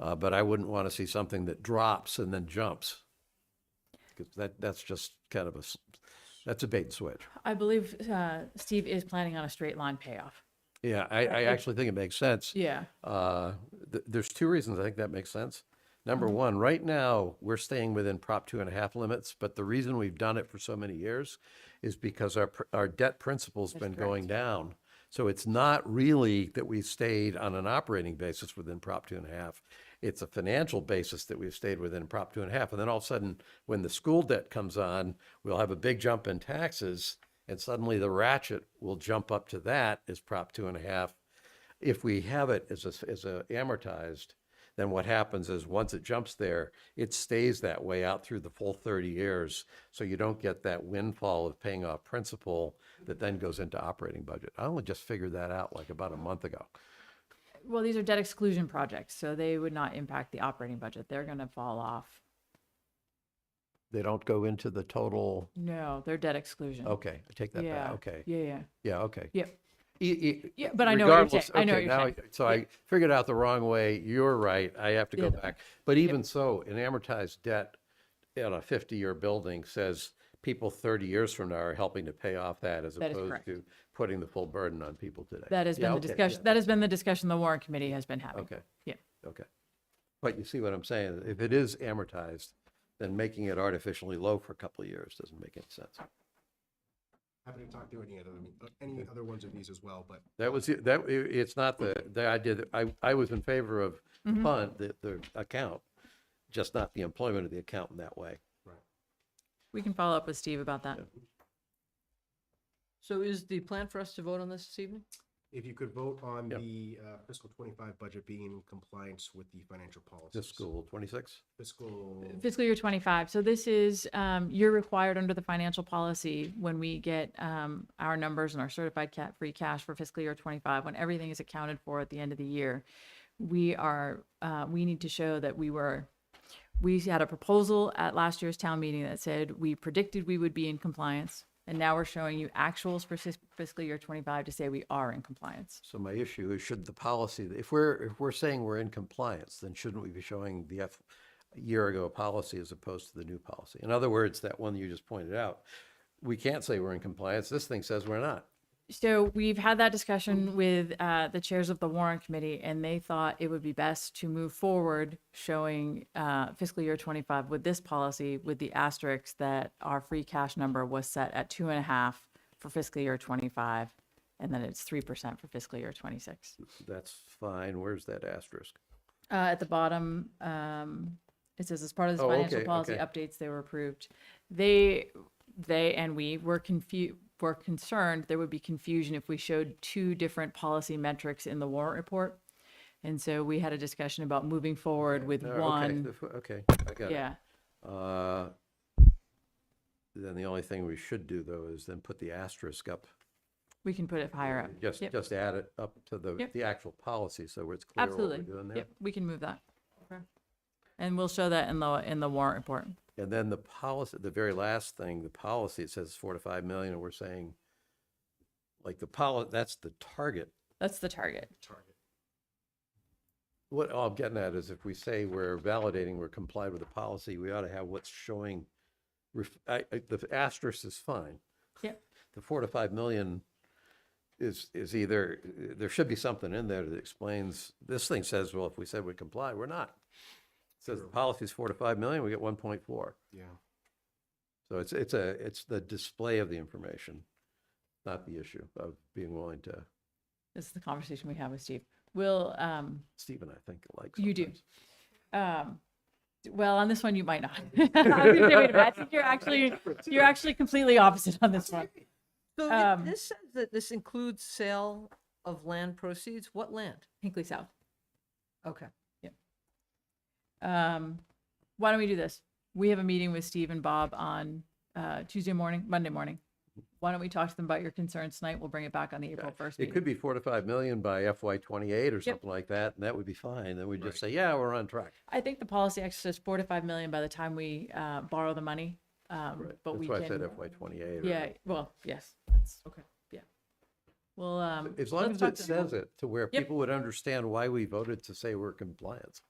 Uh, but I wouldn't want to see something that drops and then jumps. 'Cause that, that's just kind of a, s- that's a bait and switch. I believe uh, Steve is planning on a straight line payoff. Yeah, I, I actually think it makes sense. Yeah. Uh, th- there's two reasons I think that makes sense. Number one, right now, we're staying within Prop two and a half limits, but the reason we've done it for so many years is because our, pr- our debt principal's been going down. So it's not really that we've stayed on an operating basis within Prop two and a half. It's a financial basis that we've stayed within Prop two and a half. And then all of a sudden, when the school debt comes on, we'll have a big jump in taxes. And suddenly the ratchet will jump up to that as Prop two and a half if we have it as a, as a amortized, then what happens is once it jumps there, it stays that way out through the full 30 years. So you don't get that windfall of paying off principal that then goes into operating budget. I only just figured that out like about a month ago. Well, these are debt exclusion projects, so they would not impact the operating budget. They're going to fall off. They don't go into the total. No, they're debt exclusion. Okay, I take that Yeah. back. Okay. Yeah, yeah, Yeah, okay. yeah. E- e- Yeah, but I know what you're regardless- saying. I know okay, what you're now saying. I- So I figured out the wrong way. You're right. I have to go back. But even so, an amortized debt on a 50-year building says people 30 years from now are helping to pay off that as That is opposed correct. to putting the full burden on people today. That has Yeah, been the okay, yeah, discussion, that has been the discussion the warrant committee has been having. Okay, Yeah. okay. But you see what I'm saying? If it is amortized, then making it artificially low for a couple of years doesn't make any sense. Happy to talk through any other, uh, any other ones of these as well, but That was, it- that, i- it's not the, the idea that, I, I was in favor of Mm-hmm. fund, the, the account, just not the employment of the account in that way. We can follow up with Steve about that. So is the plan for us to vote on this this evening? if you could vote on Yeah. the uh, fiscal twenty-five budget being in compliance with the financial policies. This school, twenty-six? Fiscal, Fiscal year 25. So this is, um, you're required under the financial policy when we get um, our numbers and our certified cat free cash for fiscal year 25, when everything is accounted for at the end of the year, we are, uh, we need to show that we were, we had a proposal at last year's town meeting that said we predicted we would be in compliance. And now we're showing you actuals for fis- fiscal year 25 to say we are in compliance. So my issue is should the policy, if we're, if we're saying we're in compliance, then shouldn't we be showing the F, year ago policy as opposed to the new policy? In other words, that one you just pointed out, we can't say we're in compliance. This thing says we're not. So we've had that discussion with uh, the chairs of the warrant committee, and they thought it would be best to move forward showing uh, fiscal year 25 with this policy, with the asterisk that our free cash number was set at two and a half for fiscal year 25, and then it's 3% for fiscal year 26. That's fine. Where's that asterisk? Uh, At the bottom, um, it says as part of this Oh, financial okay, policy okay. updates, they were approved. They, they and we were confused, were concerned there would be confusion if we showed two different policy metrics in the warrant report. And so we had a discussion about moving forward with Oh, okay, one, the f- Okay, I got it. yeah. Uh, Then the only thing we should do, though, is then put the asterisk up, We can put it higher up. just, Yep, just add it up to the, Yep. the actual policy, so it's clear what we're Absolutely. doing there. Yep, we can move that. And we'll show that in the, in the warrant report. And then the policy, the very last thing, the policy, it says four to five million, and we're saying, like, the policy, that's the target. That's the target. What all I'm getting at is if we say we're validating, we're complied with the policy, we ought to have what's showing, ref- I, I- the asterisk is fine. Yep. the four to five million is, is either, there should be something in there that explains, this thing says, well, if we said we comply, we're not. It Says the policy's four to five million, we get one point four. yeah. So it's, it's a, it's the display of the information, not the issue of being willing to, This is the conversation we have with Steve. We'll, um, Stephen, I think, likes. You do. sometimes. Um, d- well, on this one, you might not. I was gonna say, wait a minute, I think you're actually, you're actually completely opposite on this one. So Um, thi- this says that this includes sale of land proceeds. What land? Hinkley South. Okay. Um, why don't we do this? We have a meeting with Steve and Bob on, uh, Tuesday morning, Monday morning. Why don't we talk to them about your concerns tonight? We'll bring it back on the April first It could be meeting. four to five million by FY twenty-eight or something like that, and that would be fine. Then we'd just say, yeah, we're on track. I think the policy actually says four to five million by the time we, uh, borrow the money. Um, but That's we why I said can, FY twenty-eight. or- yeah, well, yes. Okay. Yeah. Well, um. As long let's as talk it to them. says it to where Yep. people would understand why we voted to say we're compliant.